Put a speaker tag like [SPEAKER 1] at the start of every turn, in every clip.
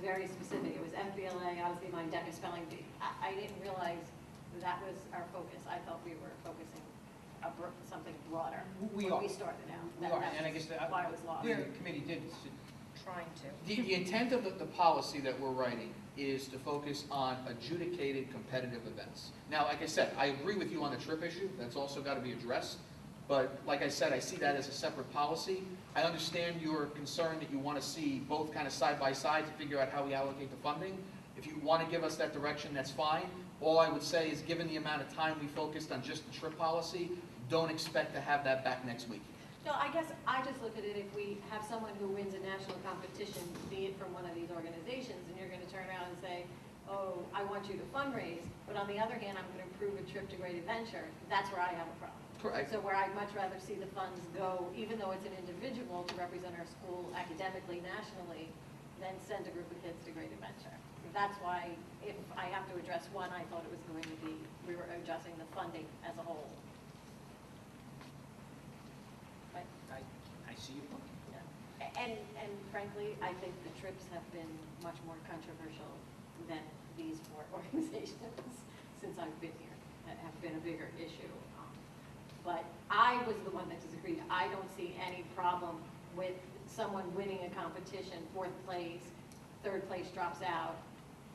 [SPEAKER 1] very specific, it was MPLA, obviously my DECA spelling bee. I, I didn't realize that was our focus, I thought we were focusing abro- something broader.
[SPEAKER 2] We
[SPEAKER 1] when
[SPEAKER 2] are.
[SPEAKER 1] We started out.
[SPEAKER 2] We
[SPEAKER 1] That-
[SPEAKER 2] are,
[SPEAKER 1] that
[SPEAKER 2] and I guess the-
[SPEAKER 1] Why it was lost.
[SPEAKER 2] The committee did, s-
[SPEAKER 3] trying to.
[SPEAKER 2] the, the intent of the, the policy that we're writing is to focus on adjudicated competitive events. Now, like I said, I agree with you on the trip issue, that's also gotta be addressed, but like I said, I see that as a separate policy. I understand your concern that you wanna see both kind of side by side to figure out how we allocate the funding. If you wanna give us that direction, that's fine. All I would say is, given the amount of time we focused on just the trip policy, don't expect to have that back next week.
[SPEAKER 1] No, I guess I just look at it, if we have someone who wins a national competition, be it from one of these organizations, and you're gonna turn around and say, oh, I want you to fundraise, but on the other hand, I'm gonna approve a trip to Great Adventure, that's where I have a problem.
[SPEAKER 2] Correct.
[SPEAKER 1] So where I'd much rather see the funds go, even though it's an individual to represent our school academically, nationally, than send a group of kids to Great Adventure. That's why, if I have to address one, I thought it was going to be, we were addressing the funding as a whole. But
[SPEAKER 2] I, I see your point.
[SPEAKER 1] yeah. And, and frankly, I think the trips have been much more controversial than these four organizations since I've been here, that have been a bigger issue. Um, But I was the one that disagreed. I don't see any problem with someone winning a competition, fourth place, third place drops out,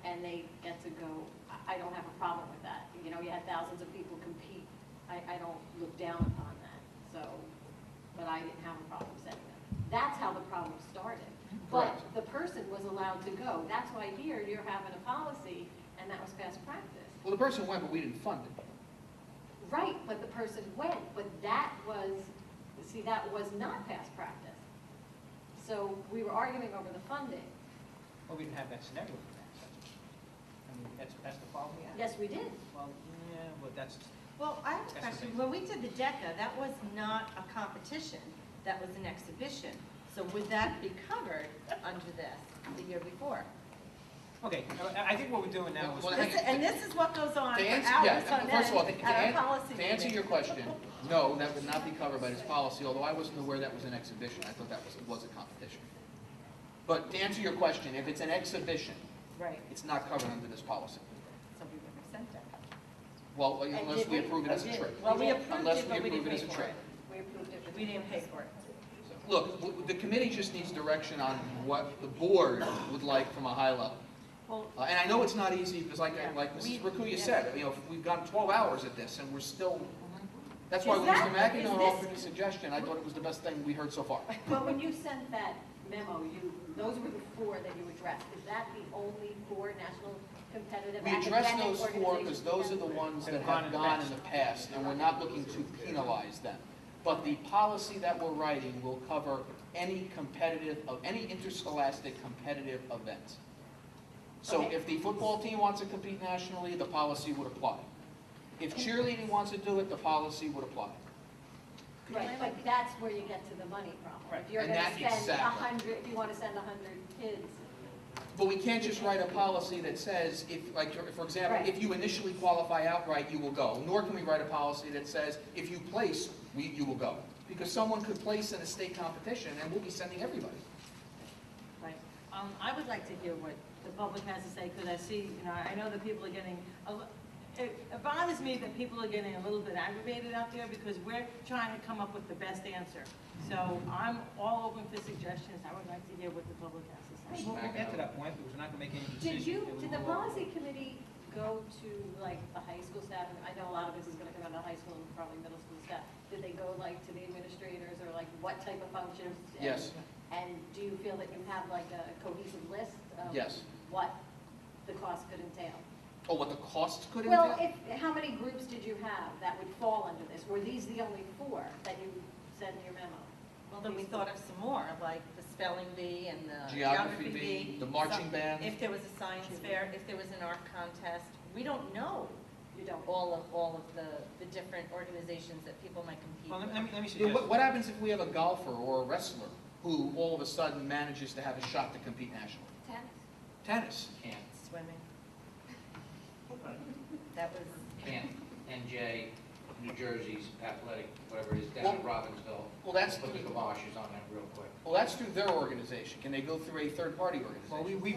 [SPEAKER 1] and they get to go. I- I don't have a problem with that. You know, you had thousands of people compete. I, I don't look down upon that, so but I didn't have a problem setting it. That's how the problem started. But
[SPEAKER 2] Correct.
[SPEAKER 1] the person was allowed to go. That's why here you're having a policy, and that was best practice.
[SPEAKER 2] Well, the person went, but we didn't fund it.
[SPEAKER 1] Right, but the person went, but that was, see, that was not past practice. So we were arguing over the funding.
[SPEAKER 4] Well, we didn't have that scenario for that. I mean, that's, that's the problem we had.
[SPEAKER 1] Yes, we did.
[SPEAKER 4] Well, yeah, well, that's,
[SPEAKER 3] Well, I have a
[SPEAKER 4] That's the
[SPEAKER 3] question.
[SPEAKER 4] thing.
[SPEAKER 3] When we did the DECA, that was not a competition, that was an exhibition. So would that be covered under this the year before?
[SPEAKER 4] okay, I- I think what we're doing now is.
[SPEAKER 2] Well,
[SPEAKER 3] This- And this is what goes on
[SPEAKER 2] To
[SPEAKER 3] for
[SPEAKER 2] answer, yeah,
[SPEAKER 3] hours on
[SPEAKER 2] first of all, to-
[SPEAKER 3] end
[SPEAKER 2] to
[SPEAKER 3] at
[SPEAKER 2] an-
[SPEAKER 3] our policy
[SPEAKER 2] to answer
[SPEAKER 3] meeting.
[SPEAKER 2] your question, no, that would not be covered by this policy, although I wasn't aware that was an exhibition, I thought that was, was a competition. But to answer your question, if it's an exhibition,
[SPEAKER 3] Right,
[SPEAKER 2] it's not covered under this policy.
[SPEAKER 3] so we would resent that.
[SPEAKER 2] Well,
[SPEAKER 3] And
[SPEAKER 2] unless
[SPEAKER 3] did
[SPEAKER 2] we
[SPEAKER 3] we?
[SPEAKER 2] approve it
[SPEAKER 3] Oh,
[SPEAKER 2] as a
[SPEAKER 3] did-
[SPEAKER 2] trip.
[SPEAKER 3] well, we approved
[SPEAKER 2] Unless
[SPEAKER 3] it, but we
[SPEAKER 2] approve
[SPEAKER 3] didn't
[SPEAKER 2] as
[SPEAKER 3] pay
[SPEAKER 2] a
[SPEAKER 3] for
[SPEAKER 2] trip.
[SPEAKER 1] We approved it. with-
[SPEAKER 3] We didn't pay for it.
[SPEAKER 2] Look, w- the committee just needs direction on what the board would like from a high level.
[SPEAKER 3] Well,
[SPEAKER 2] Uh, And I know it's not easy, because like,
[SPEAKER 3] Yeah.
[SPEAKER 2] like
[SPEAKER 3] We-
[SPEAKER 2] Mrs. Rakuya
[SPEAKER 3] yeah.
[SPEAKER 2] said, you know, we've gotten 12 hours at this, and we're still, that's why when Mr.
[SPEAKER 3] Exactly. Is
[SPEAKER 2] McEnroe
[SPEAKER 3] this-
[SPEAKER 2] offered a suggestion, I thought it was the best thing we heard so far.
[SPEAKER 1] But when you sent that memo, you, those were the four that you addressed. Is that the only four national competitive
[SPEAKER 2] We
[SPEAKER 1] academic
[SPEAKER 2] address
[SPEAKER 1] organizations?
[SPEAKER 2] those four, because those are the
[SPEAKER 1] that-
[SPEAKER 2] ones that
[SPEAKER 4] Have gone
[SPEAKER 2] have
[SPEAKER 4] in the
[SPEAKER 2] gone in
[SPEAKER 4] past.
[SPEAKER 2] the past, and we're not looking to penalize them. But the policy that we're writing will cover any competitive, of any interscholastic competitive event. So
[SPEAKER 1] Okay.
[SPEAKER 2] if the football team wants to compete nationally, the policy would apply. If cheerleading wants to do it, the policy would apply.
[SPEAKER 1] Right, but that's where you get to the money problem.
[SPEAKER 4] Right,
[SPEAKER 1] If you're
[SPEAKER 2] and
[SPEAKER 1] gonna
[SPEAKER 2] that-
[SPEAKER 1] spend a
[SPEAKER 2] exactly.
[SPEAKER 1] hundred, if you wanna send a hundred kids,
[SPEAKER 2] But we can't just write a policy that says, if, like, for example,
[SPEAKER 1] Right.
[SPEAKER 2] if you initially qualify outright, you will go. Nor can we write a policy that says, if you place, we, you will go. Because someone could place in a state competition, and we'll be sending everybody.
[SPEAKER 5] Right. Um, I would like to hear what the public has to say, because I see, you know, I know that people are getting, a li- it it bothers me that people are getting a little bit aggravated out there, because we're trying to come up with the best answer. So I'm all open for suggestions, I would like to hear what the public has to say.
[SPEAKER 4] We'll, we'll get to that point, because we're not gonna make any decision.
[SPEAKER 1] did you,
[SPEAKER 4] till we
[SPEAKER 1] did the
[SPEAKER 4] go over.
[SPEAKER 1] policy committee go to like the high school staff? And I know a lot of this is gonna come out of high school and probably middle school staff. Did they go like to the administrators or like what type of functions? and-
[SPEAKER 2] Yes.
[SPEAKER 1] And do you feel that you have like a cohesive list of?
[SPEAKER 2] Yes.
[SPEAKER 1] What the cost could entail?
[SPEAKER 2] Oh, what the cost could entail?
[SPEAKER 1] Well, if, how many groups did you have that would fall under this? Were these the only four that you said in your memo?
[SPEAKER 3] well, then we thought of some more, like the spelling bee and the
[SPEAKER 2] Geography
[SPEAKER 3] geography
[SPEAKER 2] bee,
[SPEAKER 3] bee.
[SPEAKER 2] the marching
[SPEAKER 3] some-
[SPEAKER 2] band.
[SPEAKER 3] If there was a science fair, if there was an art contest, we don't know
[SPEAKER 1] You don't.
[SPEAKER 3] all of, all of the, the different organizations that people might compete
[SPEAKER 4] Well,
[SPEAKER 3] with.
[SPEAKER 4] let let me, let me
[SPEAKER 2] Yeah,
[SPEAKER 4] suggest.
[SPEAKER 2] What, what happens if we have a golfer or a wrestler who all of a sudden manages to have a shot to compete nationally?
[SPEAKER 1] Tennis?
[SPEAKER 2] Tennis?
[SPEAKER 3] Swimming. That was,
[SPEAKER 6] N- NJ, New Jersey's athletic, whatever it is, down in Robbinsville.
[SPEAKER 2] Well, that's,
[SPEAKER 6] Put the
[SPEAKER 2] through-
[SPEAKER 6] kibosh on that real quick.
[SPEAKER 2] well, that's through their organization. Can they go through a third-party organization?
[SPEAKER 4] Well, we, we